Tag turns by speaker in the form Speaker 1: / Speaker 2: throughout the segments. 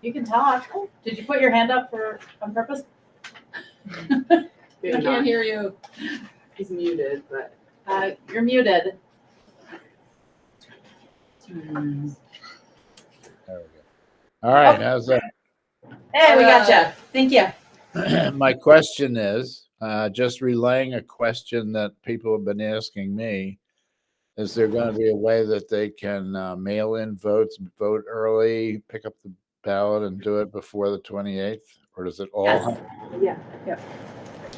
Speaker 1: You can talk. Did you put your hand up for, on purpose?
Speaker 2: Maybe
Speaker 3: I
Speaker 2: not.
Speaker 3: can't hear you.
Speaker 2: He's muted, but
Speaker 1: Uh, you're muted. Mm.
Speaker 4: There we go. All right, how's that?
Speaker 1: Hey, we got you. Thank you.
Speaker 4: My question is, uh, just relaying a question that people have been asking me. Is there going to be a way that they can uh, mail in votes, vote early, pick up the ballot and do it before the 28th? Or does it all?
Speaker 1: Yes.
Speaker 2: yeah.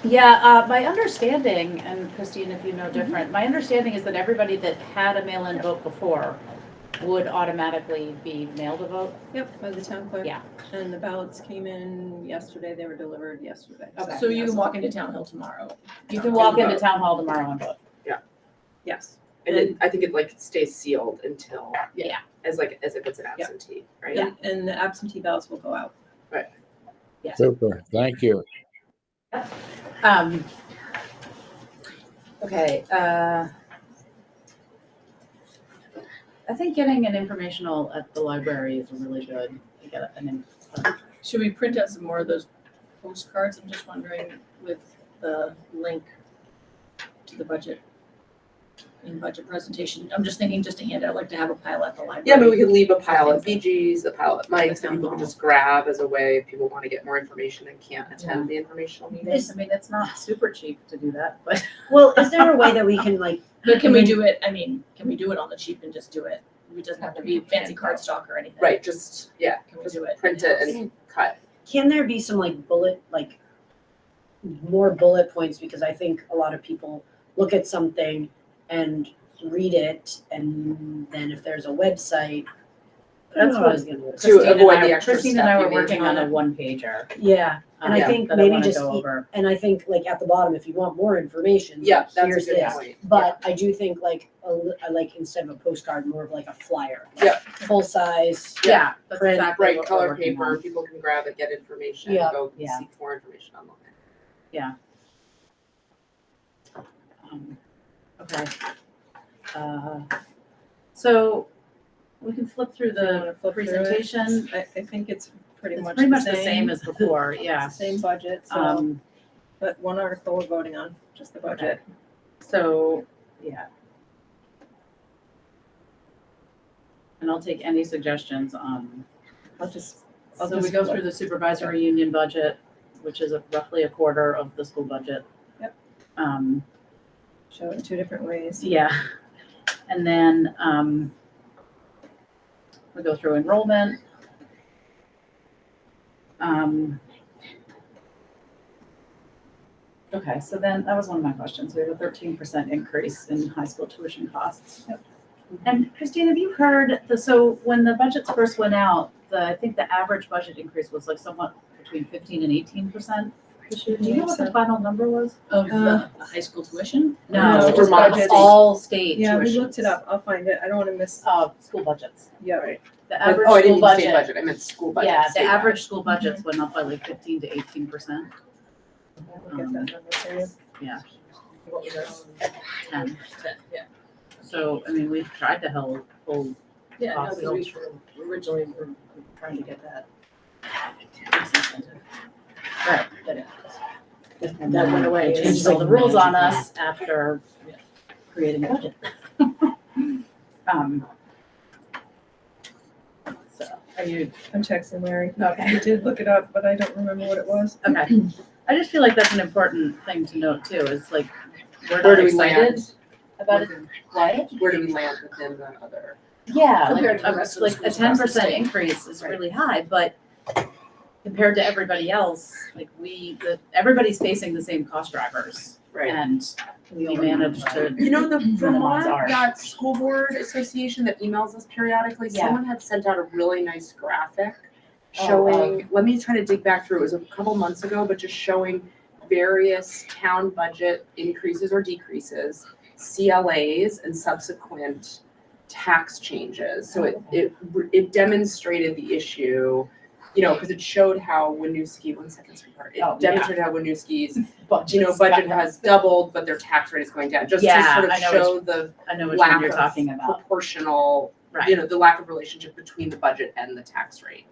Speaker 1: Yeah, uh, my understanding, and Christine, if you know different, my understanding is that everybody that had a mail-in vote before would automatically be mailed a vote.
Speaker 5: Yep, by the town clerk.
Speaker 1: Yeah.
Speaker 5: And the ballots came in yesterday, they were delivered yesterday.
Speaker 1: Okay.
Speaker 3: So you can walk into Town Hill tomorrow.
Speaker 1: You can walk into town hall tomorrow and vote.
Speaker 5: Yes,
Speaker 2: And it, I think it like stays sealed until
Speaker 1: Yeah.
Speaker 2: as like as if it's an absentee, right?
Speaker 5: and, and the absentee ballots will go out.
Speaker 4: Super, thank you.
Speaker 1: Um, okay, uh, I think getting an informational at the library is really good. You get an in-
Speaker 3: Should we print out some more of those postcards? I'm just wondering with the link to the budget and budget presentation. I'm just thinking just to hand out, like to have a pile at the library.
Speaker 2: Yeah, I mean, we could leave a pile at VG's, a pile at Mike's, that
Speaker 3: Sounds
Speaker 2: people can just grab as a way if people want to get more information and can't attend the informational meeting.
Speaker 1: I mean, it's not super cheap to do that, but.
Speaker 6: Well, is there a way that we can like,
Speaker 3: But can we do it, I mean, can we do it on the cheap and just do it? It doesn't have to be fancy cardstock or anything.
Speaker 2: Right, just, yeah,
Speaker 3: Can we
Speaker 2: just
Speaker 3: do it?
Speaker 2: print it and cut.
Speaker 6: can there be some like bullet, like more bullet points? Because I think a lot of people look at something and read it and then if there's a website, that's what I was gonna
Speaker 2: To
Speaker 1: Christine and
Speaker 2: avoid
Speaker 1: I-
Speaker 2: the extra
Speaker 1: Christine
Speaker 2: step
Speaker 1: and I
Speaker 2: you
Speaker 1: were
Speaker 2: may
Speaker 1: working on
Speaker 2: wanna-
Speaker 1: a one pager.
Speaker 6: Yeah, and I
Speaker 2: Yeah,
Speaker 6: think
Speaker 1: that I
Speaker 6: maybe
Speaker 1: wanna
Speaker 6: just,
Speaker 1: go
Speaker 6: e-
Speaker 1: over.
Speaker 6: and I think like at the bottom, if you want more information,
Speaker 2: Yeah, that's
Speaker 6: here's
Speaker 2: a good
Speaker 6: this.
Speaker 2: point.
Speaker 6: But I do think like, a li- I like instead of a postcard, more of like a flyer. like,
Speaker 2: Yeah.
Speaker 6: Full size.
Speaker 1: Yeah, that's
Speaker 6: Print,
Speaker 1: exactly
Speaker 2: Right,
Speaker 1: what we're
Speaker 2: color
Speaker 1: working
Speaker 2: paper,
Speaker 1: on.
Speaker 2: people can grab it, get information,
Speaker 6: Yeah.
Speaker 2: go
Speaker 1: Yeah.
Speaker 2: seek more information online.
Speaker 1: Um, Okay. Uh, So we can flip through the presentation.
Speaker 5: I, I think it's pretty
Speaker 1: It's
Speaker 5: much
Speaker 1: pretty much the same as before, yeah.
Speaker 5: It's the Same budget, so,
Speaker 1: Um,
Speaker 5: but one article we're voting on, just the budget.
Speaker 1: so, yeah. And I'll take any suggestions on,
Speaker 5: I'll just, I'll
Speaker 1: so we
Speaker 5: just
Speaker 1: go
Speaker 5: flip.
Speaker 1: through the supervisory union budget, which is a- roughly a quarter of the school budget.
Speaker 5: Yep.
Speaker 1: Um,
Speaker 5: show it in two different ways.
Speaker 1: yeah. And then, um, we go through enrollment. Um, okay, so then that was one of my questions. We have a thirteen percent increase in high school tuition costs. And Christine, have you heard, the- so when the budgets first went out, the, I think the average budget increase was like somewhat between fifteen and eighteen percent. Do you know what the final number was? Uh,
Speaker 3: Of the the high school tuition?
Speaker 5: No,
Speaker 1: No,
Speaker 5: it's
Speaker 1: for
Speaker 5: Vermont.
Speaker 1: all state
Speaker 5: Yeah, we
Speaker 1: tuitions.
Speaker 5: looked it up, I'll find it, I don't wanna miss,
Speaker 1: Uh, school budgets.
Speaker 5: yeah, right,
Speaker 1: The
Speaker 2: But-
Speaker 1: average
Speaker 2: Oh, I
Speaker 1: school
Speaker 2: didn't mean state
Speaker 1: budget.
Speaker 2: budget, I meant school budget.
Speaker 1: Yeah, the
Speaker 2: state budget.
Speaker 1: average school budgets went up by like fifteen to eighteen percent,
Speaker 5: we'll get that number for you.
Speaker 3: What was that?
Speaker 1: ten.
Speaker 3: Yeah.
Speaker 1: So, I mean, we've tried to hold, hold,
Speaker 3: Yeah, no, 'cause we
Speaker 1: we originally were trying to get that. 10% into- Right, but it- that went away,
Speaker 6: It's
Speaker 1: changed
Speaker 6: just
Speaker 1: all the
Speaker 6: like
Speaker 1: rules on
Speaker 6: magic.
Speaker 1: us after
Speaker 3: Yeah.
Speaker 1: creating a budget. Um. So, are you
Speaker 5: I'm texting Larry.
Speaker 1: Okay.
Speaker 5: I did look it up, but I don't remember what it was.
Speaker 1: Okay. I just feel like that's an important thing to note too, is like, we're
Speaker 2: Where
Speaker 1: not
Speaker 2: do we land?
Speaker 1: excited about it. Why?
Speaker 2: Where do we land within the other?
Speaker 1: Yeah,
Speaker 3: Compared
Speaker 1: like,
Speaker 3: to the rest
Speaker 1: a-
Speaker 3: of the
Speaker 1: like a
Speaker 3: schools
Speaker 1: ten
Speaker 3: across the
Speaker 1: percent
Speaker 3: state.
Speaker 1: increase is
Speaker 2: Right.
Speaker 1: really high, but compared to everybody else, like we, the, everybody's facing the same cost drivers. And we managed to,
Speaker 2: You know, the
Speaker 1: Vermont
Speaker 2: Vermont,
Speaker 1: are.
Speaker 2: that school board association that emails us periodically,
Speaker 1: Yeah.
Speaker 2: someone had sent out a really nice graphic
Speaker 1: Oh,
Speaker 2: showing, let me try to dig back through, it was a couple months ago, but just showing various town budget increases or decreases, CLAs and subsequent tax changes. So it, it, it demonstrated the issue, you know, because it showed how Winooski, one second, sweetheart,
Speaker 1: Oh, yeah.
Speaker 2: it demonstrated how Winooski's
Speaker 1: but,
Speaker 2: you know, budget has doubled, but their tax rate is going down, just to
Speaker 1: Yeah,
Speaker 2: sort of
Speaker 1: I know
Speaker 2: show the
Speaker 1: I know which one
Speaker 2: lack
Speaker 1: you're
Speaker 2: of
Speaker 1: talking about,
Speaker 2: proportional,
Speaker 1: right?
Speaker 2: you know, the lack of relationship between the budget and the tax rate.